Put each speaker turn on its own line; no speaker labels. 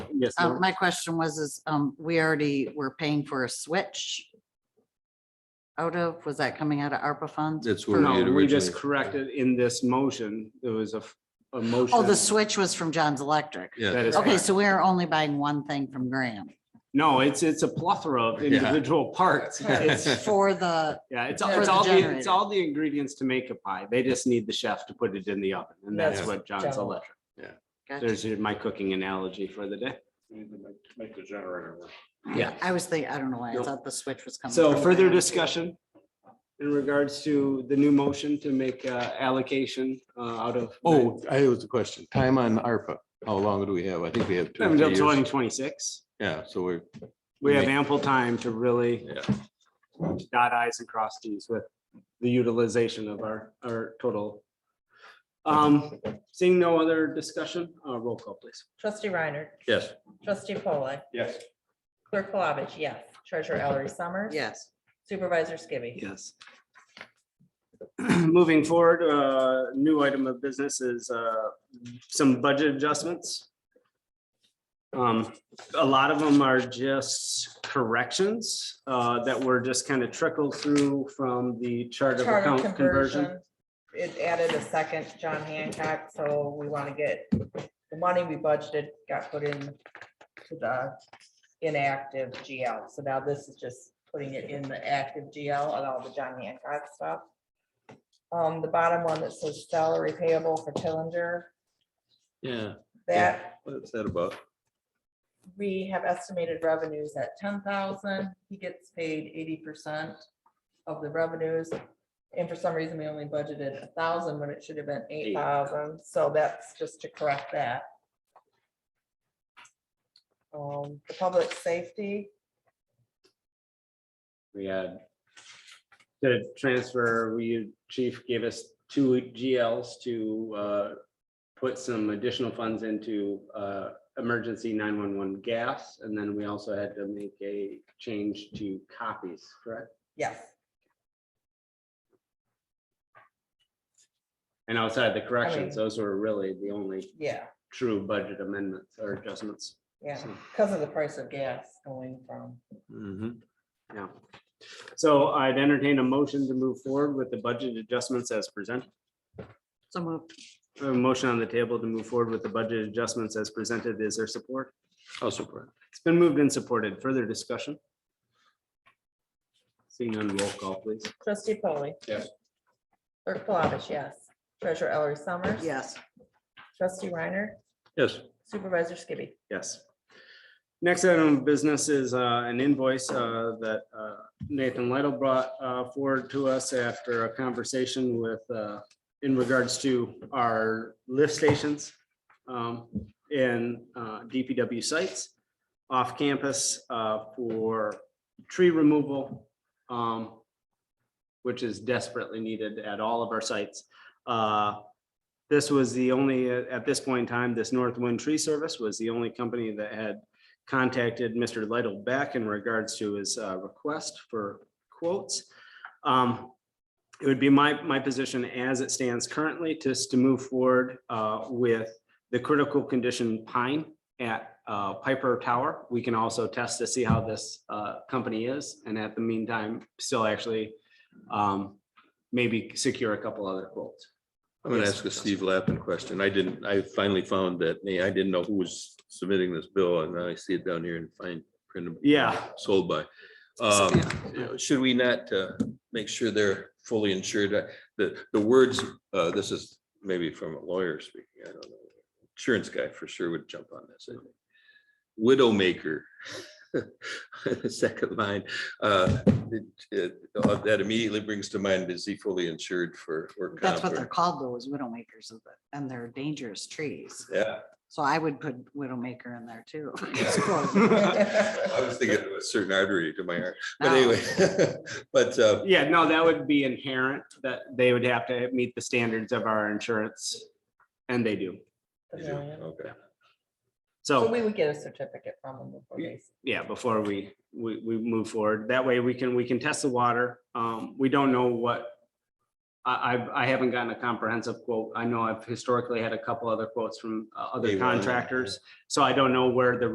Yes,
Uh,
ma'am.
my question was, is, um, we already were paying for a switch. Out of, was that coming out of ARPA funds?
That's where we had
No, we just
originally.
corrected in this motion, there was a, f- a motion.
Oh, the switch was from John's Electric.
That
Yeah,
is
Okay,
correct.
so we're only buying one thing from Graham
No, it's, it's a plethora of
Yeah.
individual parts. It's,
for the,
yeah, it's,
For
it's
the
all, the- it's
generator.
all the ingredients to make a pie. They just need the chef to put it in the oven, and that's
Yeah.
what John's
Joe.
Electric.
gotcha.
There's your- my cooking analogy for the day.
Make the generator work.
Yeah.
I was thinking, I don't know why, I thought the switch was coming.
So
from
further
Graham.
discussion in regards to the new motion to make uh, allocation uh, out of.
oh, I was a question. Time on ARPA. How long do we have? I think we have two. or three
Until
years.
twenty twenty-six.
Yeah, so we're,
We have ample time to really
yeah,
dot i's and cross t's with the utilization of our, our total. Um, seeing no other discussion, uh, roll call please.
Trustee Reiner.
yes.
Trustee Polak.
Yes.
Clerk Palovich, yes. Treasurer Ellery Summers.
Yes,
Supervisor Skibby.
Yes. Moving forward, uh, new item of business is, uh, some budget adjustments. Um, a lot of them are just corrections, uh, that were just kind of trickled through from the chart of
Charter
account conversion.
conversion. It added a second John Hancock, so we want to get the money we budgeted got put in to the inactive GL. So now this is just putting it in the active GL and all the John Hancock stuff. Um, the bottom one that says salary payable for Tillinger,
Yeah.
that
What's that about?
we have estimated revenues at ten thousand, he gets paid eighty percent of the revenues. And for some reason, we only budgeted a thousand when it should have been eight thousand, so that's just to correct that. Um, the public safety,
We had the transfer, we, chief gave us two GLs to uh, put some additional funds into uh, emergency nine-one-one gas, and then we also had to make a change to copies, correct?
yes,
And outside the corrections, those were really the only
yeah,
true budget amendments or adjustments.
yeah, because of the price of gas going from,
Yeah. So I'd entertain a motion to move forward with the budget adjustments as presented.
so moved.
A motion on the table to move forward with the budget adjustments as presented. Is there support?
I'll support.
It's been moved and supported. Further discussion? Seeing none, roll call, please.
trustee Polly.
Yes.
Clerk Palovich, yes, treasurer Ellery Summers.
Yes,
Trustee Reiner,
Yes,
supervisor Skibby.
Yes. Next item of business is uh, an invoice uh, that uh, Nathan Lytle brought uh, forward to us after a conversation with, uh, in regards to our lift stations um, in uh, DPW sites off campus uh, for tree removal, um, which is desperately needed at all of our sites. Uh, this was the only, uh, at this point in time, this Northwind Tree Service was the only company that had contacted Mr. Lytle back in regards to his uh, request for quotes. Um, It would be my, my position as it stands currently, just to move forward uh, with the critical condition pine at uh, Piper Tower. We can also test to see how this uh, company is, and at the meantime, still actually um, maybe secure a couple other quotes.
I'm gonna
Yes.
ask a Steve Lappin question. I didn't, I finally found that, hey, I didn't know who was submitting this bill and then I see it down here and find print
Yeah,
sold by. Um, you know, Should we not uh, make sure they're fully insured? Uh, The, the words, uh, this is maybe from a lawyer speaking, I don't know. Insurance guy for sure would jump on this. I think. Widowmaker. Second line, uh, it- it- that immediately brings to mind, is he fully insured for? work
that's
comp
what they're
or-
called though, is widowmakers, of the- and they're dangerous trees.
Yeah.
So I would put widowmaker in there too.
I was thinking of a certain artery to my heart, but
No.
anyway, but uh,
Yeah, no, that would be inherent, that they would have to meet the standards of our insurance, and they do.
you do, okay.
So
So,
we would get a certificate from them before
Yeah.
they.
yeah, before we, we, we move forward, that way we can, we can test the water. Um, we don't know what, I, I've, I haven't gotten a comprehensive quote. I know I've historically had a couple other quotes from uh,
They
other
were, yeah.
contractors, so I don't know where the